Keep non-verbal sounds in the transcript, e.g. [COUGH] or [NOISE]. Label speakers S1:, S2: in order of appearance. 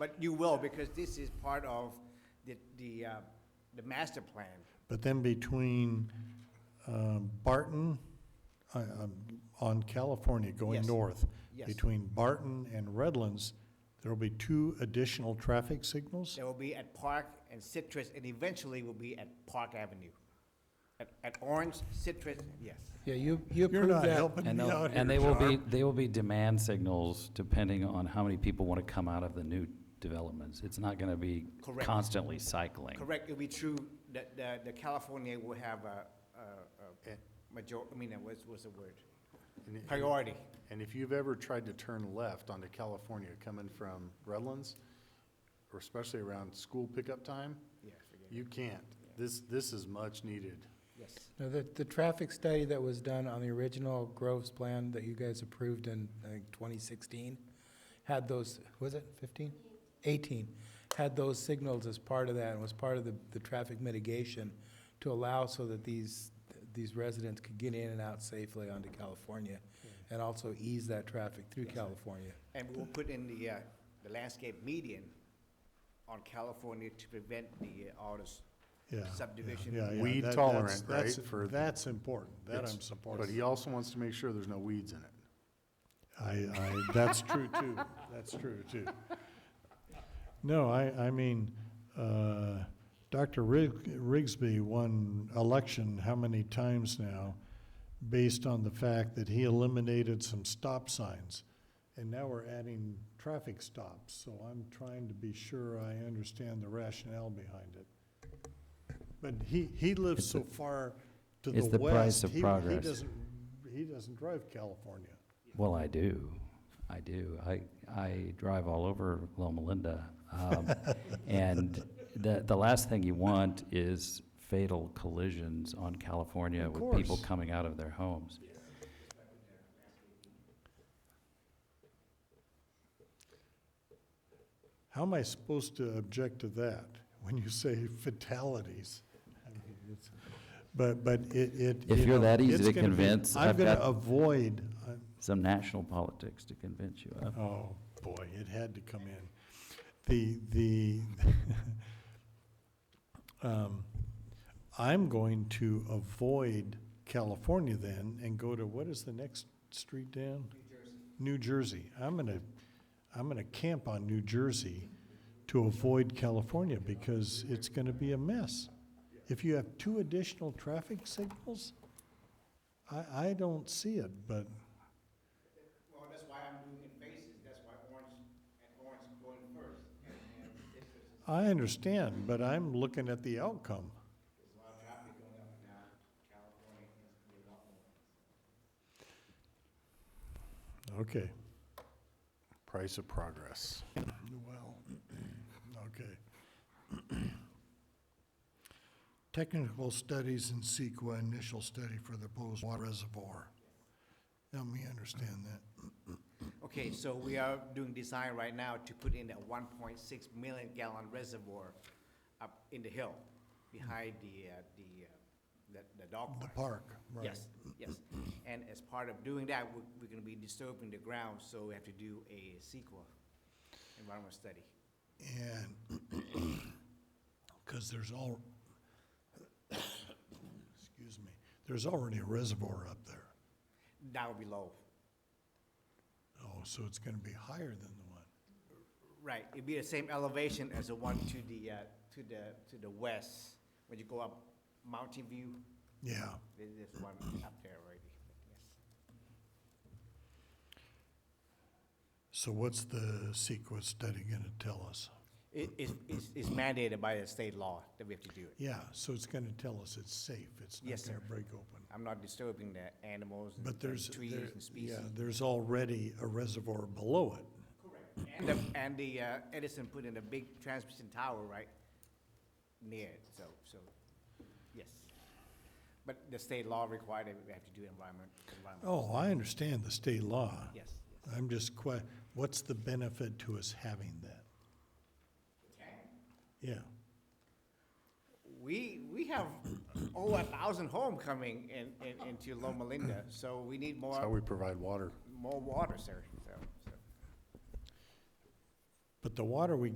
S1: But you will, because this is part of the, the, uh, the master plan.
S2: But then between um, Barton, uh, um, on California going
S1: Yes.
S2: north,
S1: Yes.
S2: between Barton and Redlands, there will be two additional traffic signals?
S1: There will be at Park and Citrus, and eventually will be at Park Avenue. At, at Orange, Citrus, yes.
S3: Yeah, you,
S2: You're
S3: you approved
S2: not
S3: that.
S2: helping
S4: And
S2: me
S4: they'll,
S2: out here,
S4: and they will be,
S2: Tom.
S4: they will be demand signals depending on how many people want to come out of the new developments. It's not gonna be
S1: Correct.
S4: constantly cycling.
S1: Correct, it'll be true that, that, the California will have a, a, a major, I mean, that was, what's the word?
S5: And it-
S1: Priority.
S5: And if you've ever tried to turn left onto California coming from Redlands, or especially around school pickup time,
S1: Yeah, forget it.
S5: you can't. This, this is much needed.
S1: Yes,
S3: No, The, the traffic study that was done on the original Groves plan that you guys approved in, I think, 2016, had those, was it 15? 18, had those signals as part of that, and was part of the, the traffic mitigation to allow so that these, these residents could get in and out safely onto California, and also ease that traffic through California.
S1: and we'll put in the, uh, the landscape median on California to prevent the, uh, all this
S2: Yeah, yeah,
S1: subdivision.
S2: yeah, yeah. That-
S5: Weed
S2: that's-
S5: tolerant, right,
S2: that's-
S5: for-
S2: That's important, that
S5: It's-
S2: I'm
S5: But he
S2: supporting.
S5: also wants to make sure there's no weeds in it.
S2: I, I, that's true too, that's true too. No, I, I mean, uh, Dr. Rig- Rigsby won election how many times now based on the fact that he eliminated some stop signs. And now we're adding traffic stops, so I'm trying to be sure I understand the rationale behind it. But he, he lives so far to the
S4: It's
S2: west.
S4: the price of
S2: he- He
S4: progress.
S2: doesn't, he doesn't drive California.
S4: Well, I do, I do. I, I drive all over Loma Linda. um,
S2: [LAUGHS]
S4: And the, the last thing you want is fatal collisions on California
S2: Of
S4: with people
S2: course.
S4: coming out of their homes.
S2: How am I supposed to object to that when you say fatalities? I mean, it's- But, but it, it.
S4: If
S2: you
S4: you're
S2: know,
S4: that easy
S2: it's
S4: to
S2: gonna be-
S4: convince,
S2: I'm
S4: I've
S2: gonna
S4: got-
S2: avoid, uh, I-
S4: Some national politics to convince you of.
S2: oh, boy, it had to come in. The, the, [LAUGHS] um, I'm going to avoid California then and go to, what is the next street down? New Jersey. I'm gonna, I'm gonna camp on New Jersey to avoid California because it's gonna be a mess. If you have two additional traffic signals, I, I don't see it, but,
S1: Well, that's why I'm doing in phases, that's why Orange, and Orange going first, and, and Citrus is
S2: I understand, but I'm looking at the outcome.
S1: There's a lot of traffic going up and down California, it's gonna be a lot more.
S2: Okay, [CLEARS THROAT]
S5: Price of progress.
S2: well, okay. Technical studies and CEQA initial study for the proposed water reservoir. Help me understand that.
S1: Okay, so we are doing design right now to put in a one point six million gallon reservoir up in the hill behind the, uh, the, uh, the, the dog
S2: The
S1: park.
S2: park, right.
S1: Yes, yes. And as part of doing that, we're, we're gonna be disturbing the ground, so we have to do a sequel environmental study.
S2: And, because there's all, excuse me, there's already a reservoir up there.
S1: That would be low.
S2: Oh, so it's gonna be higher than the one.
S1: Right, it'd be the same elevation as the one to the, uh, to the, to the west, when you go up Mountain View,
S2: Yeah.
S1: there's this one up there already, yes.
S2: So what's the CEQA study gonna tell us?
S1: It, it's- it's, it's mandated by the state law that we have to do it.
S2: Yeah, so it's gonna tell us it's safe, it's not
S1: Yes,
S2: gonna
S1: sir.
S2: break open.
S1: I'm not disturbing the animals and
S2: But there's,
S1: and trees
S2: there,
S1: and species.
S2: yeah, there's already a reservoir below it.
S1: And the, and the uh, Edison put in a big transmission tower right near it, so, so, yes. But the state law required that we have to do environment, environment,
S2: Oh, I understand the state law.
S1: yes, yes.
S2: I'm just que, what's the benefit to us having that? Yeah,
S1: We, we have over a thousand homes coming in, in, into Loma Linda, so we need
S5: That's how we
S1: more,
S5: provide water.
S1: more water, sir, so, so.
S2: but the water we